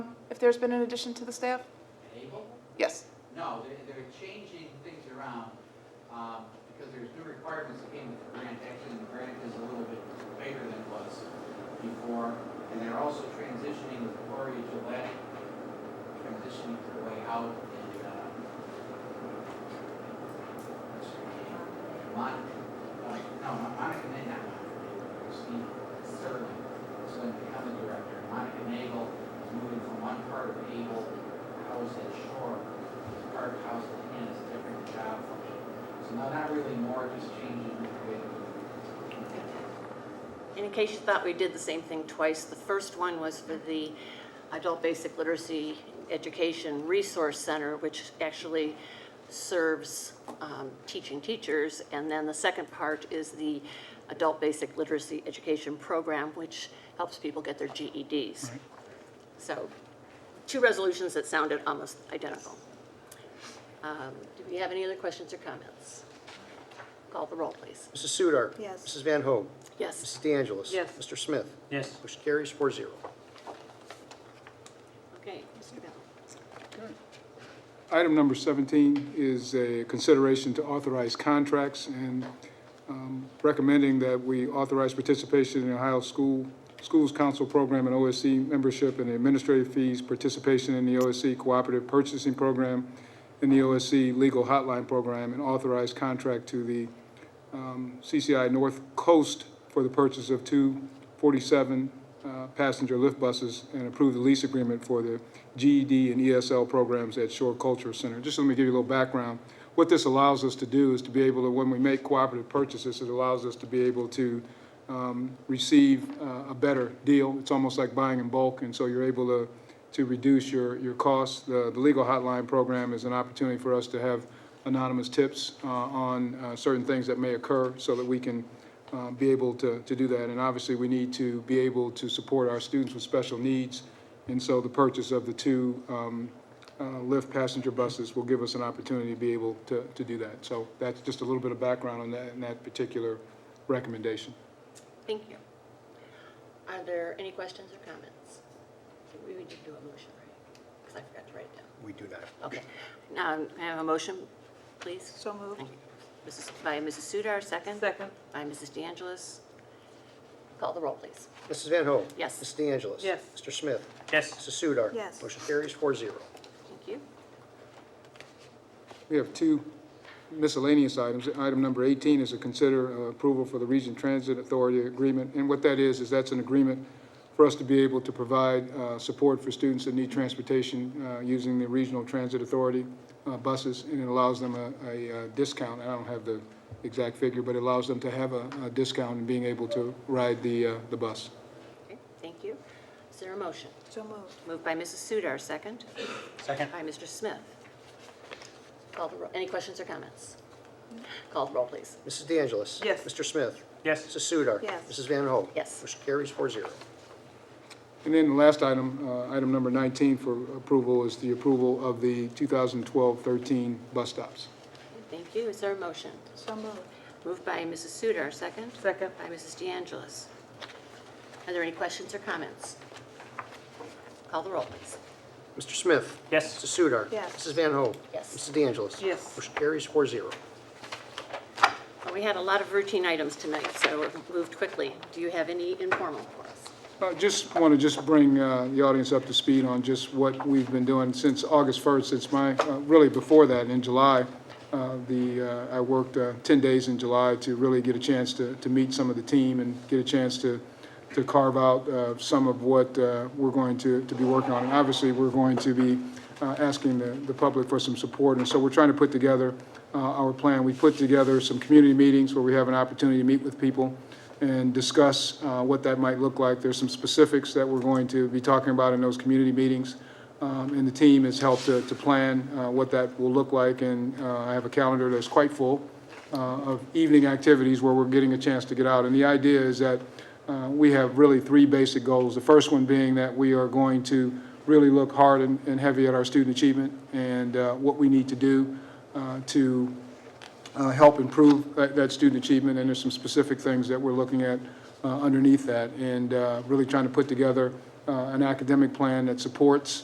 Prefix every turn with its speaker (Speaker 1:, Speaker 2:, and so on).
Speaker 1: there's been an addition to the staff?
Speaker 2: In April?
Speaker 1: Yes.
Speaker 2: No, they're, they're changing things around, um, because there's new requirements that came with the grant. Actually, the grant is a little bit bigger than it was before. And they're also transitioning with Gloria Gillette, transitioning her way out and, uh, what's her name? Mon, uh, no, Mon- Monica, Nagel, not Monica, Christine Sterling, is going to become the director. Monica Nagel is moving from one part of Able, housed at Shore, Park House and it's a different job function. So not, not really more, just changing the way that
Speaker 3: And in case you thought we did the same thing twice, the first one was for the Adult Basic Literacy Education Resource Center, which actually serves um, teaching teachers. And then the second part is the Adult Basic Literacy Education Program, which helps people get their GEDs. So two resolutions that sounded almost identical. Um, Do we have any other questions or comments? Call the roll, please.
Speaker 4: Mrs. Sudar.
Speaker 1: Yes.
Speaker 4: Mrs. Van Hoen.
Speaker 3: Yes.
Speaker 4: Mrs. De Angelis.
Speaker 3: Yes.
Speaker 4: Mr. Smith.
Speaker 5: Yes.
Speaker 4: Motion carries four zero.
Speaker 3: Okay, Mr. Bell.
Speaker 6: Item number 17 is a consideration to authorize contracts and um, recommending that we authorize participation in the Ohio School, Schools Council Program and OSC membership and administrative fees, participation in the OSC Cooperative Purchasing Program, and the OSC Legal Hotline Program, and authorize contract to the um, CCI North Coast for the purchase of two 47-passenger lift buses and approve the lease agreement for the GED and ESL programs at Shore Culture Center. Just let me give you a little background. What this allows us to do is to be able to, when we make cooperative purchases, it allows us to be able to um, receive uh, a better deal. It's almost like buying in bulk, and so you're able to, to reduce your, your costs. The, the legal hotline program is an opportunity for us to have anonymous tips uh, on uh, certain things that may occur so that we can uh, be able to, to do that. And obviously, we need to be able to support our students with special needs. And so the purchase of the two um, uh, Lyft passenger buses will give us an opportunity to be able to, to do that. So that's just a little bit of background on that, on that particular recommendation.
Speaker 3: Thank you. Are there any questions or comments? We would do a motion, right? Because I forgot to write it down.
Speaker 4: We do that.
Speaker 3: Okay. Now, can I have a motion, please?
Speaker 1: So moved.
Speaker 3: Thank you. Mrs. By Mrs. Sudar, second?
Speaker 7: Second.
Speaker 3: By Mrs. De Angelis. Call the roll, please.
Speaker 4: Mrs. Van Hoen.
Speaker 3: Yes.
Speaker 4: Mrs. De Angelis.
Speaker 7: Yes.
Speaker 4: Mr. Smith.
Speaker 5: Yes.
Speaker 4: Mrs. Sudar.
Speaker 1: Yes.
Speaker 4: Motion carries four zero.
Speaker 3: Thank you.
Speaker 6: We have two miscellaneous items. Item number 18 is to consider uh, approval for the Region Transit Authority Agreement. And what that is, is that's an agreement for us to be able to provide uh, support for students that need transportation uh, using the Regional Transit Authority uh, buses, and it allows them a- a uh, discount. I don't have the exact figure, but it allows them to have a a discount in being able to ride the uh, the bus.
Speaker 3: Okay, thank you. Is there a motion?
Speaker 1: So moved.
Speaker 3: Moved by Mrs. Sudar, second?
Speaker 5: Second.
Speaker 3: By Mr. Smith. Call the roll. Any questions or comments? Call the roll, please.
Speaker 4: Mrs. De Angelis.
Speaker 7: Yes.
Speaker 4: Mr. Smith.
Speaker 5: Yes.
Speaker 4: Mrs. Sudar.
Speaker 1: Yes.
Speaker 4: Mrs. Van Hoen.
Speaker 3: Yes.
Speaker 4: Motion carries four zero.
Speaker 6: And then the last item, uh, item number 19 for approval is the approval of the 2012-13 bus stops.
Speaker 3: Thank you. Is there a motion?
Speaker 1: So moved.
Speaker 3: Moved by Mrs. Sudar, second?
Speaker 7: Second.
Speaker 3: By Mrs. De Angelis. Are there any questions or comments? Call the roll, please.
Speaker 4: Mr. Smith.
Speaker 5: Yes.
Speaker 4: Mrs. Sudar.
Speaker 1: Yes.
Speaker 4: Mrs. Van Hoen.
Speaker 3: Yes.
Speaker 4: Mrs. De Angelis.
Speaker 7: Yes.
Speaker 4: Motion carries four zero.
Speaker 3: Well, We had a lot of routine items tonight, so we moved quickly. Do you have any informal for us?
Speaker 6: I Uh, just want to just bring uh, the audience up to speed on just what we've been doing since August 1st, since my, uh, really before that, in July. uh, The, uh, I worked uh, 10 days in July to really get a chance to, to meet some of the team and get a chance to, to carve out uh, some of what uh, we're going to, to be working on. And obviously, we're going to be uh, asking the, the public for some support, and so we're trying to put together uh, our plan. We put together some community meetings where we have an opportunity to meet with people and discuss uh, what that might look like. There's some specifics that we're going to be talking about in those community meetings, um, and the team has helped to to plan uh, what that will look like, and uh, I have a calendar that's quite full uh, of evening activities where we're getting a chance to get out. And the idea is that uh, we have really three basic goals. The first one being that we are going to really look hard and and heavy at our student achievement and uh, what we need to do uh, to uh, help improve that that student achievement, and there's some specific things that we're looking at uh, underneath that, and uh, really trying to put together uh, an academic plan that supports